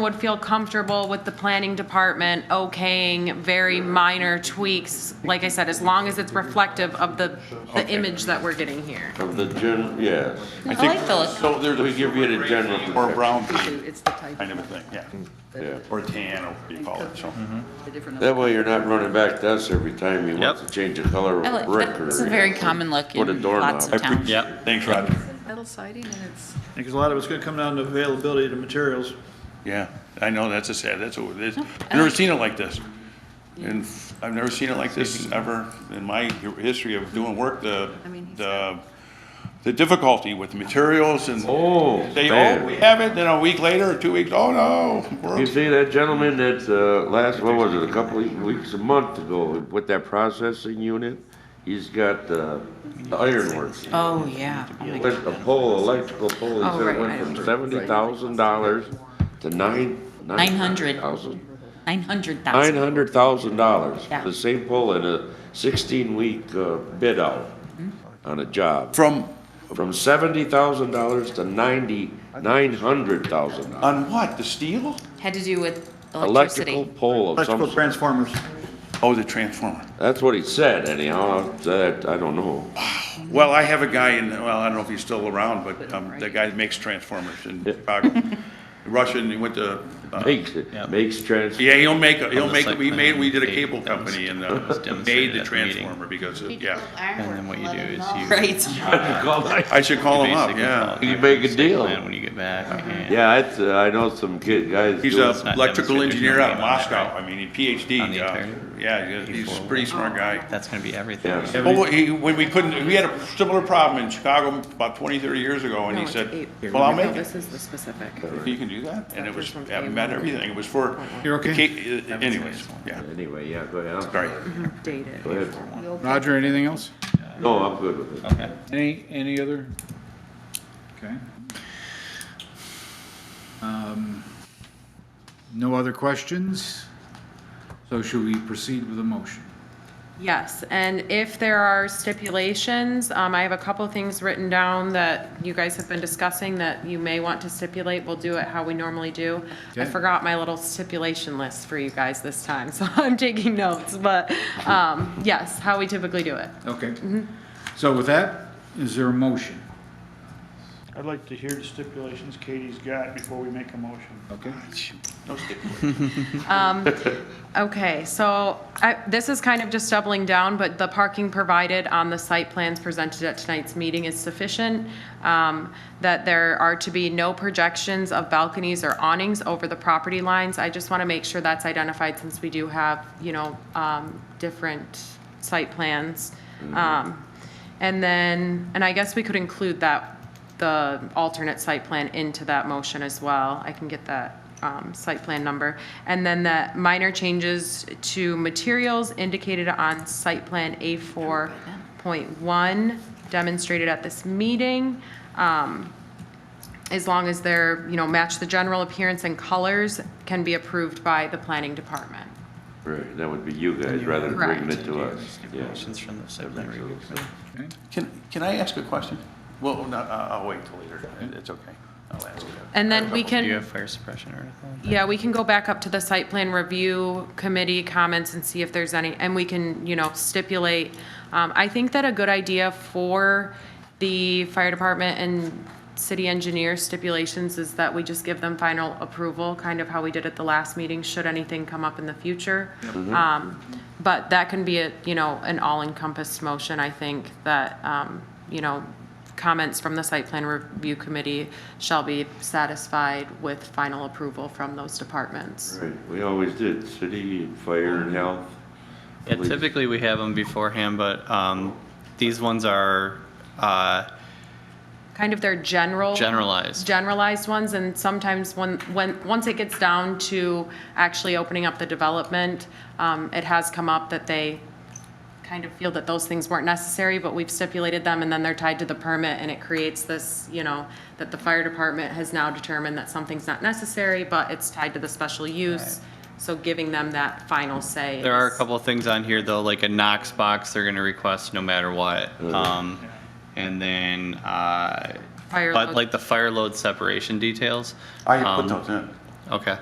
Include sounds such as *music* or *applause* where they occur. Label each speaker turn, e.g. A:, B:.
A: would feel comfortable with the planning department okaying very minor tweaks, like I said, as long as it's reflective of the, the
B: Okay.
A: image that we're getting here.
C: Of the gen, yes.
D: I
E: I like
D: think,
E: the look.
C: So there's, we give you the general
B: or
C: perception.
B: brown kind
F: It's the type,
B: of a thing, yeah.
C: Yeah.
B: Or tan, or what you call it, so.
F: the different.
C: That way you're not running back to us every time you want
D: Yep.
C: to change the color
E: I
C: of a
E: like,
C: brick or.
E: that's a very common look
C: What a
E: in lots
C: doorknob.
E: of towns.
D: yeah,
B: Thanks, Roger.
F: Metal siding and it's,
G: Because a lot of it's gonna come down to availability of the materials.
B: Yeah, I know, that's a sad, that's what it is. I've never seen it like this. And f- I've never seen it like this ever in my hi- history of doing work, the,
F: I mean, he's
B: the, the difficulty with materials and
C: Oh,
B: they, oh,
C: man.
B: we have it, then a week later, or two weeks, oh no.
C: You
B: we're-
C: see that gentleman that, uh, last, what was it, a couple of weeks, a month ago, with that processing unit? He's got, uh, the ironworks.
E: Oh, yeah. Oh, my
C: Went a pole, electrical pole, he
E: Oh,
C: said
E: right,
C: it
E: I
C: went from
E: remember.
C: seventy thousand dollars to nine.
E: 900.
C: Thousand,
E: 900,000.
C: nine hundred thousand dollars,
E: Yeah.
C: the same pole in a sixteen-week, uh, bid out
E: Mm-hmm.
C: on a job.
B: From,
C: From seventy thousand dollars to ninety, nine hundred thousand dollars.
B: on what, the steel?
E: Had to do with
C: Electrical
E: electricity.
C: pole of some
G: Electrical transformers.
B: Oh, the transformer.
C: That's what he said anyhow, that, I don't know.
B: Well, I have a guy in, well, I don't know if he's still around, but um, the guy that makes transformers in Chicago. *laughs* Russian, he went to, uh,
C: Makes, makes trans, *laughs*
B: yeah, he'll make, a-
D: On
B: he'll
D: the
B: make,
D: site
B: we
D: plan,
B: made, we did a
D: they
B: cable company and
D: *laughs*
B: uh, made the
D: demonstrated at the meeting.
B: transformer because, of- yeah.
D: and then what you do is you.
E: Right.
B: I should call
D: you
B: him up,
D: basically
B: yeah.
D: follow
C: You make a
D: the
C: deal.
D: plan When you get back. and-
C: yeah, it's, uh, I know some kid, guys.
B: He's
C: do
B: a
C: it.
D: not
B: electrical
D: demonstrated,
B: engineer
D: there's no
B: out of
D: name on that,
B: Moscow,
D: right?
B: I mean, he PhD,
D: On the
B: uh,
D: attorney?
B: yeah, he's he's a pretty smart guy.
D: That's gonna be everything.
C: Yeah.
B: Well, he, when we couldn't, we had a similar problem in Chicago about 20, 30 years ago, and
A: No,
B: he
A: it's
B: said,
A: eight.
B: well, I'll
A: No,
B: make it.
A: This is the specific.
B: You can do that, and it was,
A: From
B: it met everything, it was for.
H: You're okay?
B: Ca- uh, Anyways, yeah,
C: Anyway, yeah, go ahead. I'm
B: sorry.
C: Go
A: Updated.
C: ahead.
H: Roger, anything else?
C: No, I'm good with it.
D: Okay.
H: Any, any other? Okay. Um, No other questions? So should we proceed with a motion?
A: Yes, and if there are stipulations, um, I have a couple things written down that you guys have been discussing that you may want to stipulate. We'll do it how we normally do. I
H: Okay.
A: forgot my little stipulation list for you guys this time, *laughs* so I'm taking notes, but, um, yes, how we typically do it.
H: Okay. So with that, is there a motion?
I: I'd like to hear the stipulations Katie's got before we make a motion.
H: Okay.
B: No stick.
A: Okay, so I, this is kind of just doubling down, but the parking provided on the site plans presented at tonight's meeting is sufficient. Um, that there are to be no projections of balconies or awnings over the property lines. I just want to make sure that's identified since we do have, you know, um, different site plans. Um, and then, and I guess we could include that, the alternate site plan into that motion as well. I can get that um, site plan number. And then the minor changes to materials indicated on site plan A4.1 demonstrated at this meeting. Um, As long as they're, you know, match the general appearance and colors can be approved by the planning department.
C: Right, that would be you guys rather than bringing it to us. Yeah.
D: Questions from the site plan review committee.
H: Okay.
B: Can, can I ask a question? Well, no, I- I'll wait till later. It's okay. I'll ask it.
A: And then we can.
D: Do you have fire suppression article?
A: Yeah, we can go back up to the site plan review committee comments and see if there's any, and we can, you know, stipulate. Um, I think that a good idea for the fire department and city engineer stipulations is that we just give them final approval, kind of how we did at the last meeting, should anything come up in the future. Um, but that can be a, you know, an all-encompassed motion, I think, that, um, you know, comments from the site plan review committee shall be satisfied with final approval from those departments.
C: Right, we always did, city, fire and health.
D: Yeah,
C: Please.
D: typically we have them beforehand, but, um, these ones are, uh,
A: Kind of their general.
D: generalized.
A: Generalized ones, and sometimes when, when, once it gets down to actually opening up the development, um, it has come up that they kind of feel that those things weren't necessary, but we've stipulated them, and then they're tied to the permit, and it creates this, you know, that the fire department has now determined that something's not necessary, but it's tied to the special use, so giving them that final say.
D: There are a
A: is-
D: couple of things on here though, like a Knox box they're gonna request no matter what. Um, and then, uh,
A: Fire
D: but
A: load.
D: like the fire load separation details.
B: I put
D: um,
B: those in.
D: Okay.